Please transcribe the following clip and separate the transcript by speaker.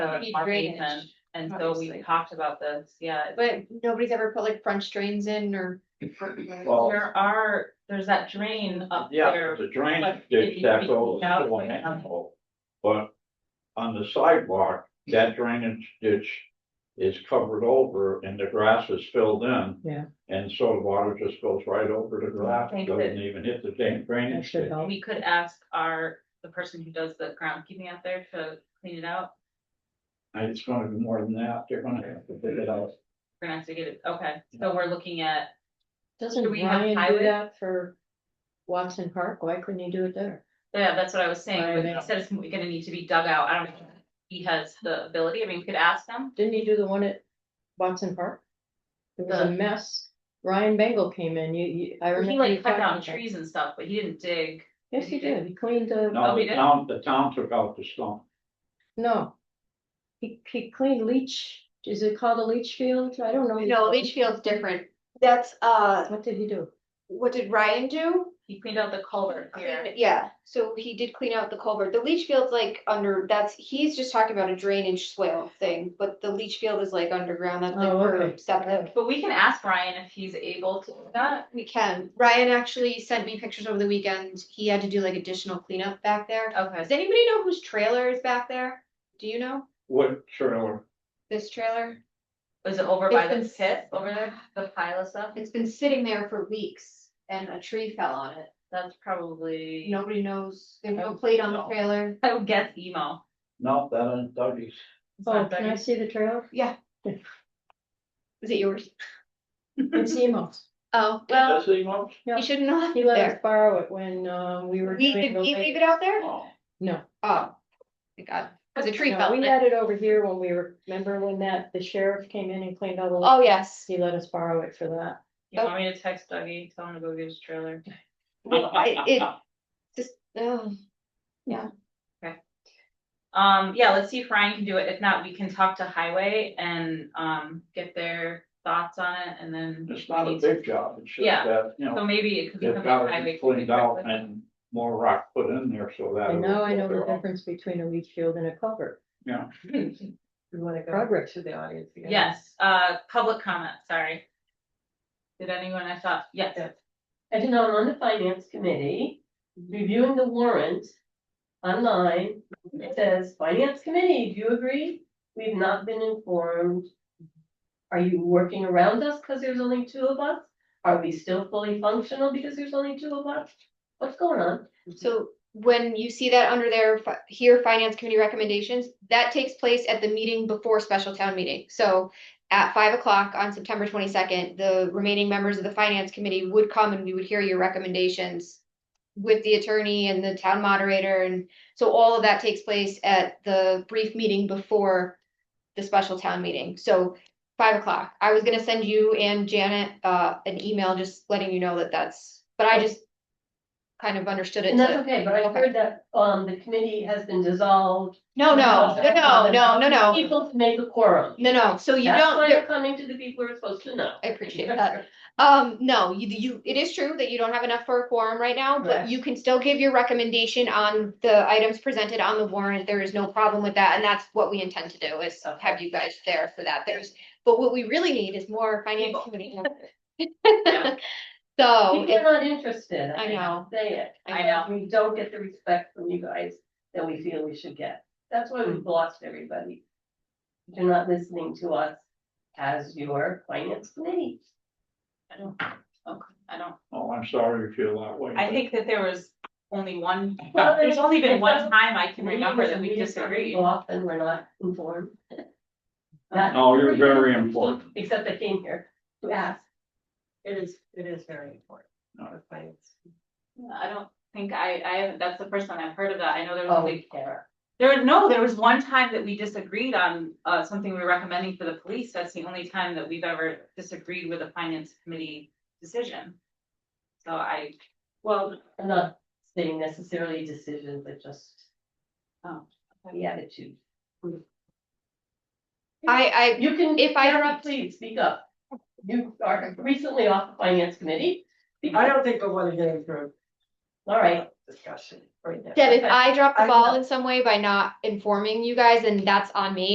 Speaker 1: of
Speaker 2: Need
Speaker 1: our
Speaker 2: drainage,
Speaker 1: basement. And so we
Speaker 2: obviously.
Speaker 1: talked about this, yeah.
Speaker 2: But nobody's ever put like French drains in or.
Speaker 3: Well-
Speaker 1: There are, there's that drain up
Speaker 3: Yeah,
Speaker 1: there.
Speaker 3: the drainage
Speaker 1: but
Speaker 3: ditch,
Speaker 1: it
Speaker 3: that's
Speaker 1: needs to
Speaker 3: all
Speaker 1: be out
Speaker 3: still
Speaker 1: by now.
Speaker 3: handle. But on the sidewalk, that drainage ditch is covered over and the grass is filled in.
Speaker 4: Yeah.
Speaker 3: And so the water just goes right over the grass,
Speaker 1: Thank
Speaker 3: doesn't
Speaker 1: you.
Speaker 3: even hit the dam drainage
Speaker 4: should
Speaker 3: ditch.
Speaker 4: help.
Speaker 1: We could ask our, the person who does the groundkeeping out there to clean it out.
Speaker 3: And it's gonna be more than that, they're gonna have to dig it out.
Speaker 1: We're gonna have to get it, okay, so we're looking at,
Speaker 4: Doesn't
Speaker 1: Do we have
Speaker 4: Ryan do
Speaker 1: highway?
Speaker 4: that for Watson Park? Why couldn't he do it there?
Speaker 1: yeah, that's what I was saying, but
Speaker 4: Right.
Speaker 1: he said it's gonna need to be dug out, I don't know. if He has the ability, I mean, we could ask him,
Speaker 4: Didn't he do the one at Watson Park? It was a
Speaker 1: The-
Speaker 4: mess. Ryan Bagel came in, you, you, I
Speaker 1: he
Speaker 4: remember. you
Speaker 1: like cut
Speaker 4: talking
Speaker 1: down
Speaker 4: about that.
Speaker 1: trees and stuff, but he didn't dig.
Speaker 4: Yes, he did. He cleaned the,
Speaker 3: Now,
Speaker 1: we
Speaker 3: the
Speaker 1: did?
Speaker 3: town, the town took out the stump.
Speaker 4: no. He, he cleaned leach, is it called a leach field? I don't know.
Speaker 2: No, leach field's different.
Speaker 5: That's, uh,
Speaker 4: What did he do?
Speaker 5: what did Ryan do?
Speaker 1: He cleaned out the culvert here,
Speaker 5: Yeah, so he did clean out the culvert. The leach field's like under, that's, he's just talking about a drainage swale thing, but the leach field is like underground, that's like
Speaker 4: Oh,
Speaker 5: for
Speaker 4: okay.
Speaker 5: septic.
Speaker 1: but we can ask Ryan if he's able to do that.
Speaker 5: We can. Ryan actually sent me pictures over the weekend. He had to do like additional cleanup back there.
Speaker 1: Okay,
Speaker 5: Does anybody know whose trailer is back there? Do you know
Speaker 3: What trailer?
Speaker 5: this trailer?
Speaker 1: was it over by the
Speaker 5: It's
Speaker 1: pit, over there, the pile of stuff?
Speaker 5: It's been sitting there for weeks and a tree fell on it.
Speaker 1: That's probably,
Speaker 5: Nobody knows. There's no plate on the
Speaker 3: No.
Speaker 5: trailer.
Speaker 1: I would guess emo.
Speaker 3: No, that ain't Dougie's.
Speaker 1: It's
Speaker 4: Oh,
Speaker 1: not
Speaker 4: can I
Speaker 1: Dougie's.
Speaker 4: see the trailer?
Speaker 5: Is it yours?
Speaker 4: It's Emo's.
Speaker 5: Oh, well,
Speaker 3: That's the most.
Speaker 5: you shouldn't know.
Speaker 4: He let us borrow it when, uh, we were.
Speaker 5: We,
Speaker 4: doing
Speaker 5: did
Speaker 4: the
Speaker 5: we
Speaker 4: lake.
Speaker 5: leave it out there?
Speaker 3: Oh,
Speaker 5: Oh, thank God, cause a tree
Speaker 4: No,
Speaker 5: fell. on
Speaker 4: We
Speaker 5: it.
Speaker 4: had it over here when we were, remember when that, the sheriff came in and cleaned all the.
Speaker 5: Oh, yes.
Speaker 4: He let us borrow it for that.
Speaker 1: You want me to text Dougie, tell him to go get his trailer?
Speaker 5: It, it just, oh,
Speaker 1: Um, yeah, let's see if Ryan can do it. If not, we can talk to Highway and, um, get their thoughts on it and then.
Speaker 3: It's not a big job, it's just
Speaker 1: Yeah.
Speaker 3: that, you know.
Speaker 1: So maybe it could
Speaker 3: They've
Speaker 1: become a
Speaker 3: got
Speaker 1: highway.
Speaker 3: it cleaned out
Speaker 1: committee.
Speaker 3: and more rock put in there, so that.
Speaker 4: And now I know the
Speaker 3: it'll-
Speaker 4: difference between a leach field and a culvert.
Speaker 3: Yeah.
Speaker 4: We wanna progress to the audience.
Speaker 1: Yes, uh, public comment, sorry. Did anyone, I thought, yes,
Speaker 6: As you know, I'm on the finance committee, reviewing the warrant online, it says, finance committee, do you agree? We've not been informed. Are you working around us because there's only two of us? Are we still fully functional because there's only two of us? What's going on?
Speaker 5: so when you see that under their, fi- here, finance committee recommendations, that takes place at the meeting before special town meeting. So at five o'clock on September twenty-second, the remaining members of the finance committee would come and we would hear your recommendations with the attorney and the town moderator, and so all of that takes place at the brief meeting before the special town meeting, so five o'clock. I was gonna send you and Janet, uh, an email just letting you know that that's, but I just kind of understood it
Speaker 6: And that's
Speaker 5: to,
Speaker 6: okay, but I
Speaker 5: okay.
Speaker 6: heard that, um, the committee has been dissolved.
Speaker 5: no, no, no, no, no, no, no,
Speaker 6: People made the quorum.
Speaker 5: no, no, so you
Speaker 6: That's
Speaker 5: don't,
Speaker 6: why you're coming to the people who are supposed to know.
Speaker 5: I appreciate that. Um, no, you, you, it is true that you don't have enough for a quorum right now, but
Speaker 6: Correct.
Speaker 5: you can still give your recommendation on the items presented on the warrant. There is no problem with that, and that's what we intend to do is
Speaker 6: Okay.
Speaker 5: have you guys there for that. There's, but what we really need is more finance committee.
Speaker 1: Yeah.
Speaker 5: members. So,
Speaker 6: People are
Speaker 5: Oh, it-
Speaker 6: not interested.
Speaker 5: I know.
Speaker 6: Say it.
Speaker 1: I know.
Speaker 6: We don't get the respect from you guys that we feel we should get. That's why we've lost everybody. You're not listening to us as your finance committee.
Speaker 1: I don't, okay, I don't,
Speaker 3: Oh, I'm sorry you feel that way.
Speaker 1: I
Speaker 3: but-
Speaker 1: think that there was only one,
Speaker 6: Well,
Speaker 1: there's only been one
Speaker 6: there's-
Speaker 1: time I can
Speaker 6: Maybe
Speaker 1: remember
Speaker 6: because
Speaker 1: that we
Speaker 6: are
Speaker 1: disagreed.
Speaker 6: Often we're not informed. That's
Speaker 3: No, you're
Speaker 6: pretty
Speaker 3: very
Speaker 6: much-
Speaker 3: important.
Speaker 6: Except I came here to ask.
Speaker 7: It is, it is very important.
Speaker 3: No.
Speaker 7: for clients.
Speaker 1: I don't think I, I, haven't- that's the first time I've heard of that. I know there was
Speaker 6: Oh,
Speaker 1: only
Speaker 6: Kara.
Speaker 1: There, was- no, there was one time that we disagreed on, uh, something we were recommending for the police. That's the only time that we've ever disagreed with a finance committee decision. So I,
Speaker 7: Well,
Speaker 6: I'm not saying necessarily decisions, but just. um,
Speaker 1: Oh, okay.
Speaker 6: The attitude.
Speaker 5: I, I,
Speaker 6: You can.
Speaker 5: If I
Speaker 6: Kara,
Speaker 5: interrupt-
Speaker 6: Please speak up. You are recently off the finance committee. Speak
Speaker 7: I
Speaker 6: up.
Speaker 7: don't think I want to get into a
Speaker 6: All right,
Speaker 7: discussion right now.
Speaker 5: Deb, if I drop the
Speaker 7: I
Speaker 5: ball
Speaker 7: know.
Speaker 5: in some way by not informing you guys, then that's on me.